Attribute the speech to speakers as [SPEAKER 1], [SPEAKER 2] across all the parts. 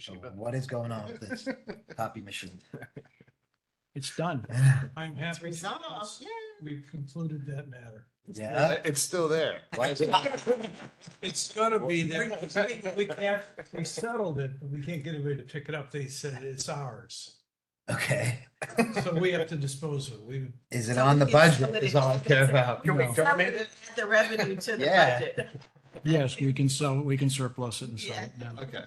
[SPEAKER 1] So
[SPEAKER 2] Toshiba.
[SPEAKER 1] What is going on with this copy machine?
[SPEAKER 3] It's done.
[SPEAKER 4] I'm
[SPEAKER 5] It's
[SPEAKER 4] happy.
[SPEAKER 5] resolved,
[SPEAKER 4] because
[SPEAKER 5] yeah.
[SPEAKER 4] We've concluded that matter.
[SPEAKER 1] Yeah.
[SPEAKER 2] It's still there.
[SPEAKER 1] Why is it-
[SPEAKER 4] It's gonna be there.
[SPEAKER 5] We- we can't-
[SPEAKER 4] We settled it, but we can't get away to pick it up. They said it's ours.
[SPEAKER 1] Okay,
[SPEAKER 4] So we have to dispose of it. We,
[SPEAKER 1] is it on the budget is all I care about.
[SPEAKER 5] Can we
[SPEAKER 4] No.
[SPEAKER 5] sell it and add The revenue to the
[SPEAKER 1] Yeah.
[SPEAKER 5] budget.
[SPEAKER 3] Yes, we can sell, we can surplus it and sell it down.
[SPEAKER 2] Okay.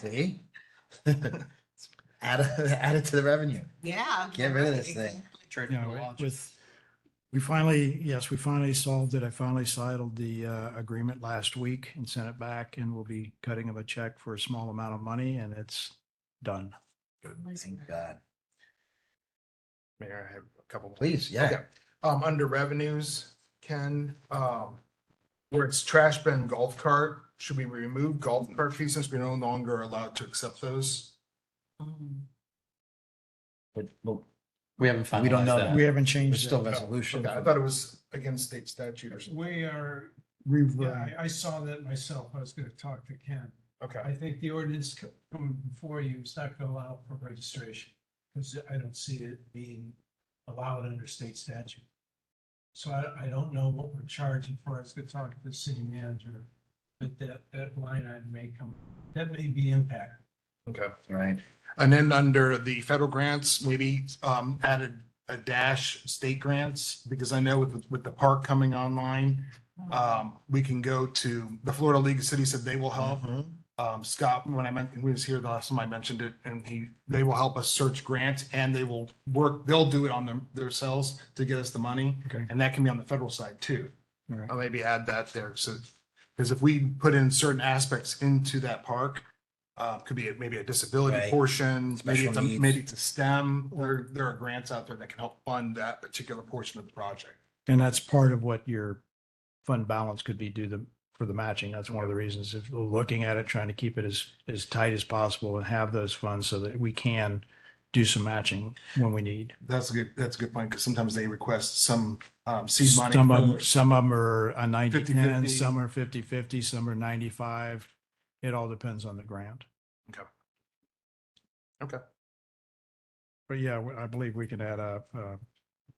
[SPEAKER 1] See? Add, it- add it to the revenue.
[SPEAKER 5] Yeah.
[SPEAKER 1] Get rid of this thing.
[SPEAKER 3] You know, with, we finally, yes, we finally solved it. I finally settled the uh, agreement last week and sent it back and we'll be cutting him a check for a small amount of money and it's done.
[SPEAKER 1] Thank God.
[SPEAKER 2] Mayor, I have a couple.
[SPEAKER 1] Please, yeah.
[SPEAKER 2] Okay. Um, under revenues, Ken, um, where it's trash bin golf cart, should we remove golf cart fees since we're no longer allowed to accept those?
[SPEAKER 1] But, but
[SPEAKER 6] We haven't
[SPEAKER 1] we don't
[SPEAKER 6] finalized
[SPEAKER 1] know.
[SPEAKER 6] that.
[SPEAKER 3] We haven't
[SPEAKER 1] There's
[SPEAKER 3] changed
[SPEAKER 1] still
[SPEAKER 3] it.
[SPEAKER 1] resolution.
[SPEAKER 2] Okay, I thought it was against state statute or something.
[SPEAKER 4] we are,
[SPEAKER 3] We've,
[SPEAKER 4] yeah,
[SPEAKER 3] uh,
[SPEAKER 4] I, I saw that myself. I was gonna talk to Ken. I
[SPEAKER 2] Okay.
[SPEAKER 4] think the ordinance co- coming before you is not gonna allow for registration, because I don't see it being allowed under state statute. So I, I don't know what we're charging for, I was gonna talk to the city manager, but that, that line item may come, that may be impacted.
[SPEAKER 2] Okay.
[SPEAKER 1] Right.
[SPEAKER 2] And then under the federal grants, maybe um added a dash state grants, because I know with with the park coming online.
[SPEAKER 4] Uh,
[SPEAKER 2] Um, we can go to the Florida League of Cities said they will help. Um, Scott, when I meant, when he was here the last time I mentioned it, and he, they will help us search grants and they will work, they'll do it on them themselves to get us the money.
[SPEAKER 3] Okay.
[SPEAKER 2] And that can be on the federal side too.
[SPEAKER 3] all right.
[SPEAKER 2] I'll maybe add that there, so, because if we put in certain aspects into that park, uh, could be a- maybe a disability
[SPEAKER 1] Right.
[SPEAKER 2] portion, maybe
[SPEAKER 1] Special
[SPEAKER 2] it's, a-
[SPEAKER 1] needs.
[SPEAKER 2] maybe it's a STEM, there, there are grants out there that can help fund that particular portion of the project.
[SPEAKER 3] And that's part of what your fund balance could be due to, for the matching. That's one of the reasons if we're looking at it, trying to keep it as, as tight as possible and have those funds so that we can do some matching when we need.
[SPEAKER 2] That's a good, that's a good point, because sometimes they request some, um, seed money.
[SPEAKER 3] Some of,
[SPEAKER 2] for-
[SPEAKER 3] them- some of them are a ninety
[SPEAKER 2] 50-50.
[SPEAKER 3] ten, some are fifty fifty, some are ninety-five. It all depends on the grant.
[SPEAKER 2] Okay. Okay.
[SPEAKER 3] But yeah, we- I believe we could add up, uh,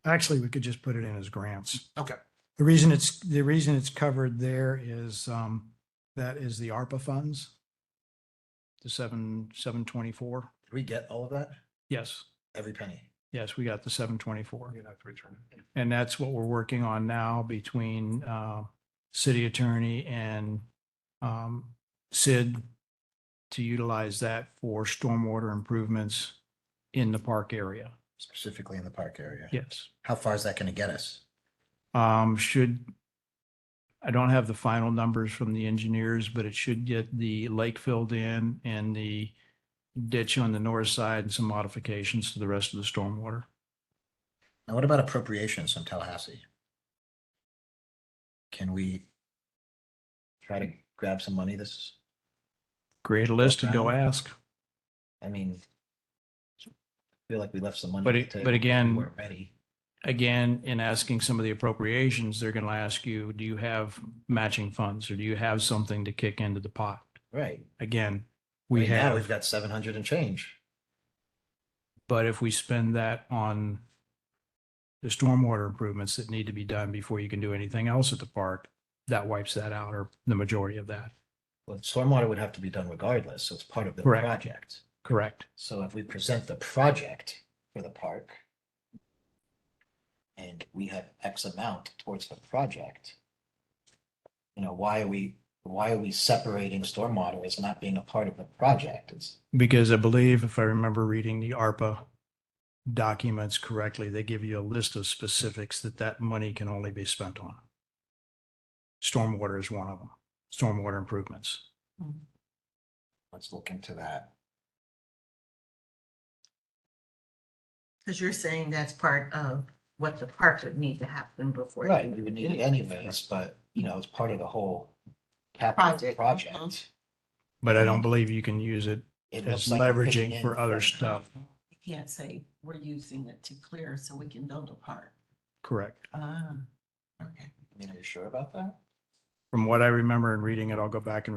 [SPEAKER 3] actually, we could just put it in as grants.
[SPEAKER 2] Okay.
[SPEAKER 3] The reason it's, the reason it's covered there is, um, that is the ARPA funds. The seven, seven twenty-four.
[SPEAKER 1] Did we get all of that?
[SPEAKER 3] Yes,
[SPEAKER 1] Every penny.
[SPEAKER 3] yes, we got the seven twenty-four.
[SPEAKER 2] You'd have to return it.
[SPEAKER 3] And that's what we're working on now between uh, city attorney and um, Sid to utilize that for stormwater improvements in the park area.
[SPEAKER 1] Specifically in the park area.
[SPEAKER 3] Yes.
[SPEAKER 1] How far is that gonna get us?
[SPEAKER 3] Um, Should, I don't have the final numbers from the engineers, but it should get the lake filled in and the ditch on the north side and some modifications to the rest of the stormwater.
[SPEAKER 1] Now, what about appropriations from Tallahassee? Can we try to grab some money this,
[SPEAKER 3] Create a list and go
[SPEAKER 1] Okay.
[SPEAKER 3] ask.
[SPEAKER 1] I mean, I feel like we left some money.
[SPEAKER 3] But,
[SPEAKER 1] on
[SPEAKER 3] it-
[SPEAKER 1] the
[SPEAKER 3] but
[SPEAKER 1] table.
[SPEAKER 3] again.
[SPEAKER 1] We weren't ready.
[SPEAKER 3] again, in asking some of the appropriations, they're going to ask you, do you have matching funds or do you have something to kick into the pot?
[SPEAKER 1] Right.
[SPEAKER 3] Again,
[SPEAKER 1] We
[SPEAKER 3] we
[SPEAKER 1] now we've
[SPEAKER 3] have,
[SPEAKER 1] got seven hundred and change.
[SPEAKER 3] but if we spend that on the stormwater improvements that need to be done before you can do anything else at the park, that wipes that out or the majority of that.
[SPEAKER 1] Well, stormwater would have to be done regardless, so it's part of the
[SPEAKER 3] Correct.
[SPEAKER 1] project.
[SPEAKER 3] Correct?
[SPEAKER 1] So if we present the project for the park and we have X amount towards the project, you know, why are we, why are we separating stormwater as not being a part of the project? It's,
[SPEAKER 3] Because I believe if I remember reading the ARPA documents correctly, they give you a list of specifics that that money can only be spent on. Stormwater is one of them, stormwater improvements.
[SPEAKER 1] let's look into that.
[SPEAKER 5] Because you're saying that's part of what the park would need to happen before. you-
[SPEAKER 1] Right, we would need it anyways, but you know, it's part of the whole capital
[SPEAKER 5] Project,
[SPEAKER 1] project.
[SPEAKER 5] mhm.
[SPEAKER 3] But I don't believe you can use it.
[SPEAKER 1] Mm-hmm. It looks
[SPEAKER 3] It's
[SPEAKER 1] like we're
[SPEAKER 3] leveraging
[SPEAKER 1] picking in
[SPEAKER 3] for other
[SPEAKER 1] from-
[SPEAKER 3] stuff.
[SPEAKER 5] You can't say we're using it to clear so we can build a park.
[SPEAKER 3] Correct.
[SPEAKER 5] Ah, okay.
[SPEAKER 1] I mean, are you sure about that?
[SPEAKER 3] From what I remember and reading it, I'll go back and read